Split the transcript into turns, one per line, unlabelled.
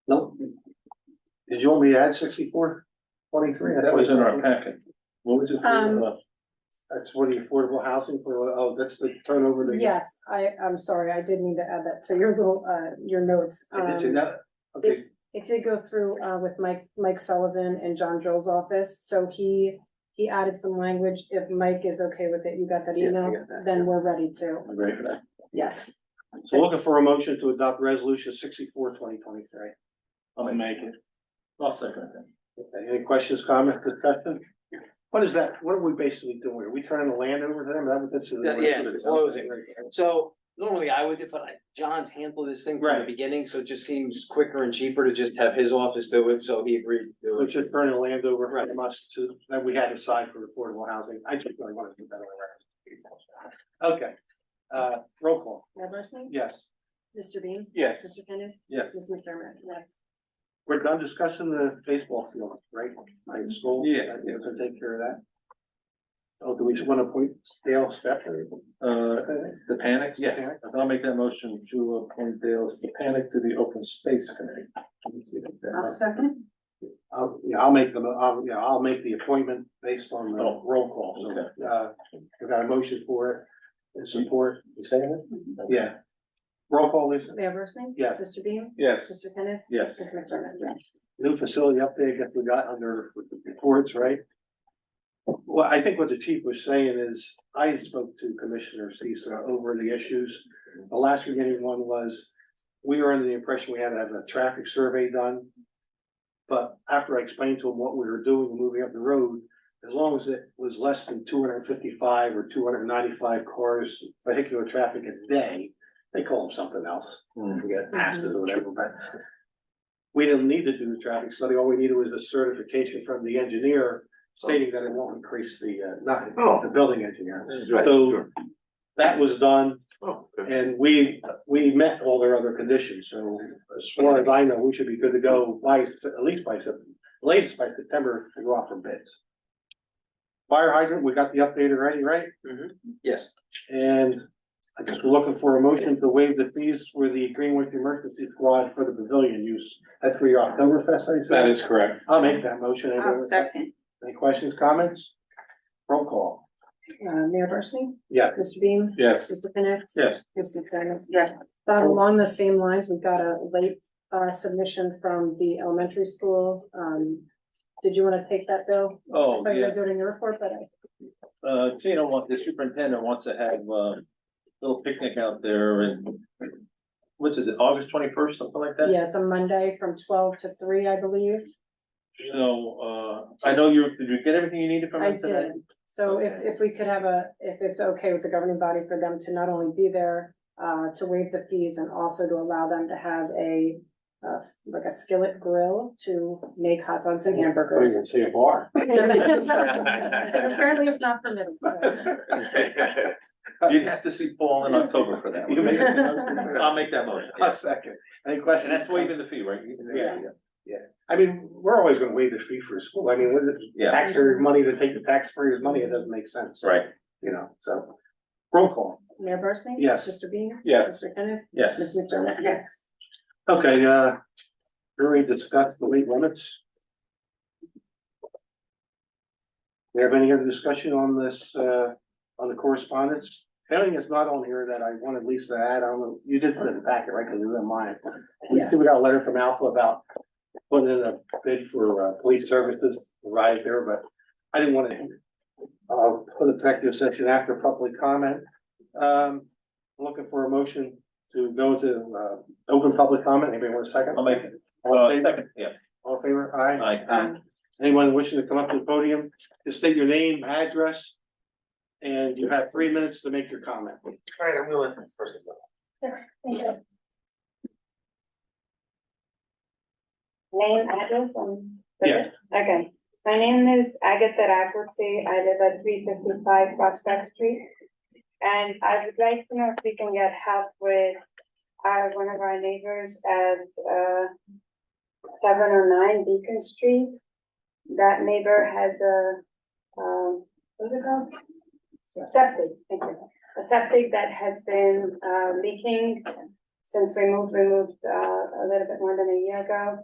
Did you want me to add sixty-four twenty-three?
That was in our packet. What was it?
Um,
That's what the affordable housing for, oh, that's the turnover. that-
Yes, I, I'm sorry, I did need to add that to your little, uh, your notes.
If It's in
Um,
that, okay,
It did go through, uh, with Mike, Mike Sullivan and John Joel's office, so he, he added some language. If Mike is okay with it, you got that
Yeah, I
email,
got that,
then we're ready to,
I'm ready for that.
yes.
so looking for a motion to adopt resolution sixty-four twenty twenty-three.
I'll make it. I'll second that.
Okay, Any questions, comments, discussion? What is that? What are we basically doing? here? Are we turning the land over to them? That would- that's-
Yeah, yeah, it's closing. So normally I would, if I, John's handled this thing from the
Right.
beginning, so it just seems quicker and cheaper to just have his office do it, so he agreed to do
We're
it.
just turning the land over
Right.
from us to, that we had aside for affordable housing. I just really want to do that. around. Okay, uh, roll call,
Mayor Barsney?
yes.
Mr. Bean?
Yes.
Mr. Kenneth?
Yes.
Ms. McDermott? Yes.
We're done discussing the baseball field, right? Like school.
Yes,
We're gonna take care of that. Oh, do we just want to appoint Dale Stephan?
Uh, Stepanic, yes. I'll make that motion to appoint Dale Stepanic to the Open Space Committee.
I'll second.
I'll, yeah, I'll make the, mo- I'll, yeah, I'll make the appointment based on the
Oh,
roll call, so, uh, we got a motion for it. And support,
You saying
Mm-hmm.
it?
yeah. Roll call, Lisa,
Mayor Barsney?
Yes.
Mr. Bean?
Yes,
Mr. Kenneth?
yes.
Ms. McDermott? Yes.
new facility update that we got under reports, right? Well, I think what the chief was saying is, I spoke to Commissioner Cisa over the issues. The last beginning one was, we were under the impression we had to have a traffic survey done. But after I explained to him what we were doing, moving up the road, as long as it was less than two hundred and fifty-five or two hundred and ninety-five cars, vehicular traffic a day, they call them something else, I
Mm.
forget, passes or whatever, but we didn't need to do the traffic study, all we needed was a certification from the engineer stating that it won't increase the, uh, not,
Oh,
the building engineer. So that was done,
Oh,
and we, we met all their other conditions, so as far as I know, we should be good to go by, at least by, Sep- latest by September to go off for bids. Fire hydrant, we got the update already, right?
Yes,
And I guess we're looking for a motion to waive the fees for the Greenwich Emergency Squad for the pavilion use. That's for your Oktoberfest, I
That
said.
is correct.
I'll make that motion.
I'll second,
Any questions, comments? Roll call.
Uh, Mayor Barsney?
Yeah.
Mr. Bean?
Yes,
Mr. Kenneth?
yes.
Ms. McDermott?
yes,
Bob, along those same lines, we've got a late uh submission from the elementary school. Um, did you want to take that, Bill?
Oh,
I
yeah.
do it in your report, but I-
uh, Tina wants, the superintendent wants to have a little picnic out there and what's it, August twenty-first, something like that?
yeah, it's a Monday from twelve to three, I believe.
So, uh, I know you, did you get everything you needed from
I
him today?
did. So if if we could have a, if it's okay with the governing body for them to not only be there uh to waive the fees and also to allow them to have a uh like a skillet grill to make hot dogs and
Oh,
hamburgers.
see a bar.
Because apparently it's not permitted, so.
You'd have to see Paul in October for that.
You make
one.
a-
I'll make that motion.
A
yes.
second. Any
And
questions?
that's waiving the fee, right?
Yeah. I mean, we're always gonna waive the fee for a school. I mean, with the
Yeah.
taxpayer money to take the taxpayer's money, it doesn't make sense.
Right,
You know, so. Roll call.
Mayor Barsney?
Yes.
Mr. Bean?
Yes.
Mr. Kenneth? Ms.
yes.
McDermott?
yes.
Okay, uh, we already discussed the weight limits. Do you have any other discussion on this, uh, on the correspondence? Anything that's not on here that I wanted Lisa to add, I don't know, you did put it in the packet, right, because it was in mine. We
Yeah.
we got a letter from Alpha about putting in a bid for, uh, police services, right there, but I didn't want to. Uh, put a practice session after public comment. Um, looking for a motion to go to, uh, Open public comment, anybody want a second?
I'll make it.
All
Uh,
in favor,
second, yeah.
all in favor, aye.
Aye.
Anyone wishing to come up to the podium, just state your name, address. And you have three minutes to make your comment.
all right, I'm gonna let this person go.
Name, address, um.
Yes.
Okay, my name is Agatha Ragwoodse, I live at three fifty-five Prospect Street. And I would like to know if we can get help with, uh, one of our neighbors at, uh, seven oh nine Beacon Street. That neighbor has a, um, what's it called? Septic, thank you, a septic that has been, uh, leaking since we moved, we moved, uh, a little bit more than a year ago.